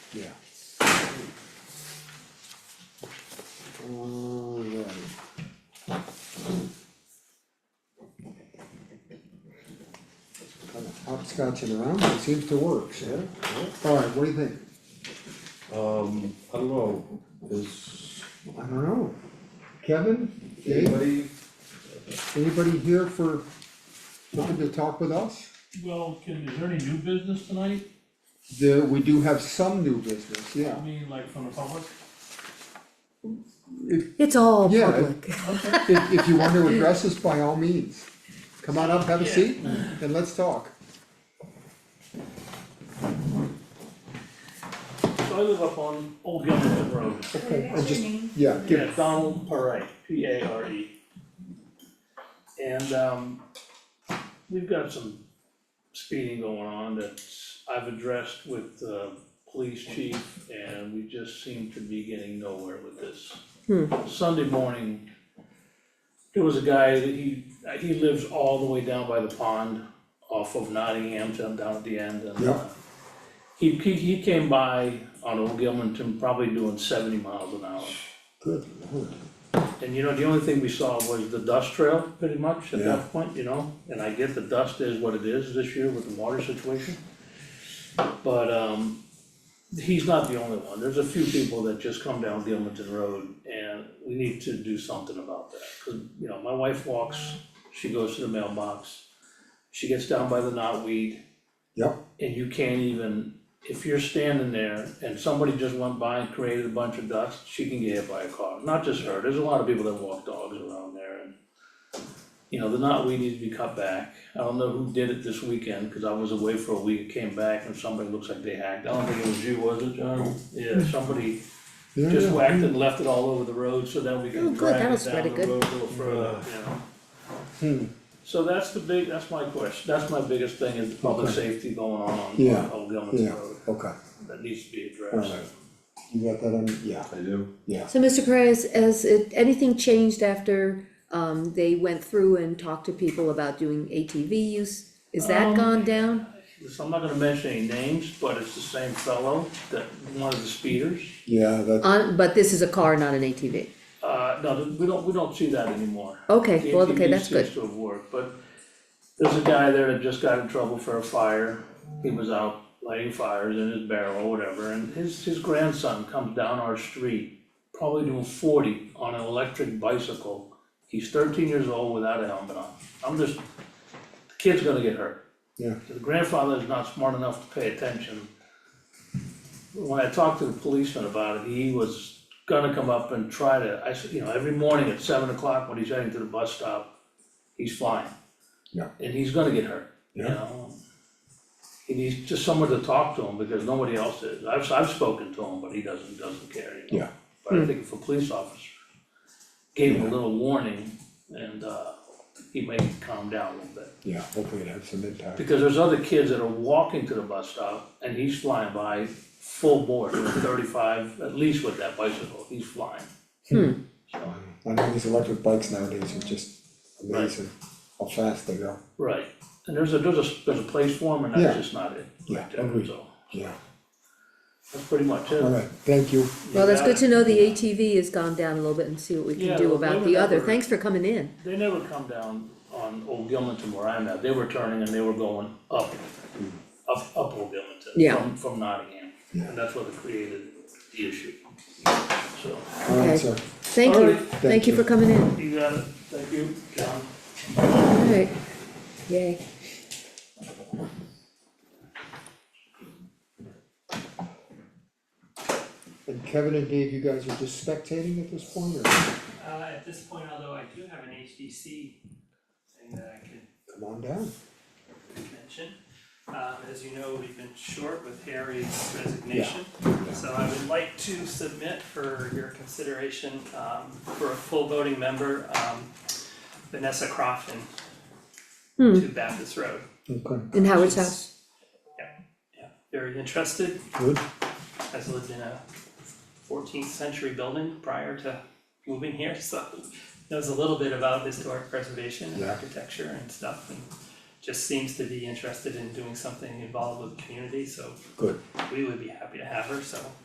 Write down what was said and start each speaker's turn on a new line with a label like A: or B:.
A: Yeah. Alright. Kind of hopscotching around, but it seems to work, so, alright, what do you think?
B: Um, I don't know, is
A: I don't know. Kevin, Dave,
B: anybody,
A: anybody here for, looking to talk with us?
C: Well, can, is there any new business tonight?
A: There, we do have some new business,
C: I
A: yeah.
C: mean, like from the public?
A: If,
D: It's all
A: Yeah, it-
D: public.
A: if, if you want to address us, by all means, come on up, have a seat, and let's talk.
C: So I live up on Old Gunnison Road.
A: And just, yeah, give,
C: Yeah, Donald Parre, P A R E. And, um, we've got some speeding going on that I've addressed with uh, the police chief, and we just seem to be getting nowhere with this. Sunday morning, there was a guy that he, he lives all the way down by the pond off of Nottingham, down down at the end, and, uh,
A: Yeah.
C: he, he, he came by on Old Gilmanton, probably doing seventy miles an hour.
A: good lord,
C: And you know, the only thing we saw was the dust trail, pretty much, at
A: Yeah.
C: that point, you know, and I get the dust is what it is this year with the water situation. But, um, he's not the only one, there's a few people that just come down Gilmanton Road, and we need to do something about that. 'Cause, you know, my wife walks, she goes to the mailbox, she gets down by the knotweed,
A: yep,
C: and you can't even, if you're standing there and somebody just went by and created a bunch of dust, she can get hit by a car, not just her, there's a lot of people that walk dogs around there and. You know, the knotweed needs to be cut back, I don't know who did it this weekend, cause I was away for a week, came back and somebody looks like they hacked, I don't think it was you, was it, John? Yeah, somebody
A: yeah,
C: just
A: yeah.
C: whacked and left it all over the road so that we
D: Oh,
C: can
D: good,
C: drag
D: that'll
C: it
D: spread
C: down the
D: it good.
C: road a little further, you know?
A: Hmm.
C: So that's the big, that's my question, that's my biggest thing is the public
A: Okay.
C: safety going on on
A: Yeah,
C: Old Gilmanton
A: Yeah,
C: Road,
A: okay,
C: that needs to be
A: alright,
C: addressed.
A: you got that on, yeah,
B: I do,
A: yeah,
D: So Mr. Perez, has it, anything changed after, um, they went through and talked to people about doing ATV use? Is that
C: Um,
D: gone down?
C: So I'm not gonna mention any names, but it's the same fellow that, one of the speeders,
A: yeah, that,
D: On, but this is a car, not an ATV.
C: uh, no, we don't, we don't see that anymore.
D: Okay, well, okay, that's
C: ATV
D: good.
C: seems to have worked, but there's a guy there that just got in trouble for a fire, he was out lighting fires in his barrel or whatever, and his, his grandson comes down our street, probably doing forty on an electric bicycle, he's thirteen years old without a helmet on, I'm just, the kid's gonna get hurt.
A: Yeah.
C: The grandfather is not smart enough to pay attention. When I talked to the policeman about it, he was gonna come up and try to, I said, you know, every morning at seven o'clock when he's heading to the bus stop, he's flying.
A: Yeah.
C: And he's gonna get hurt, you
A: Yeah.
C: know? He needs just someone to talk to him because nobody else is, I've, I've spoken to him, but he doesn't, doesn't care, you know?
A: Yeah.
C: But I think if a police officer gave him a little warning and, uh, he may calm down a little bit.
A: yeah, hopefully it has some impact,
C: Because there's other kids that are walking to the bus stop and he's flying by full board, thirty-five, at least with that bicycle, he's flying. So,
A: I know these electric bikes nowadays are just amazing, how fast they go,
C: right, and there's a, there's a, there's a place for him and
A: Yeah.
C: that's just not it.
A: Yeah,
C: Right there,
A: agreed.
C: so,
A: yeah,
C: that's pretty much it.
A: alright, thank you.
D: Well, that's good to know the
C: Yeah.
D: ATV has gone down a little bit and see what we
C: Yeah,
D: can do
C: well, they
D: about
C: were
D: the other.
C: never-
D: Thanks for coming in.
C: They never come down on Old Gilmanton where I'm at, they were turning and they were going up, up, up Old Gilmanton
D: Yeah.
C: from, from Nottingham.
A: Yeah.
C: And that's what created the issue, so.
A: Alright,
D: Okay.
A: sir,
D: Thank
C: All
D: you.
C: right.
A: Thank
D: Thank you
A: you.
D: for coming in.
C: You got it, thank you, John.
D: Alright, yay.
A: and Kevin and Dave, you guys are just spectating at this point, or,
E: Uh, at this point, although I do have an HDC thing that I could
A: come on down,
E: mention. Um, as you know, we've been short with Harry's resignation. So I would like to submit for your consideration, um, for a full voting member, um, Vanessa Crofton
D: Hmm.
E: to Baptist Road.
A: okay,
D: In Howard's house.
E: Very interested,
A: good,
E: has lived in a fourteenth century building prior to moving here, so knows a little bit about historic preservation and
A: Yeah.
E: architecture and stuff, and just seems to be interested in doing something involved with the community, so
B: Good.
E: we would be happy to have her, so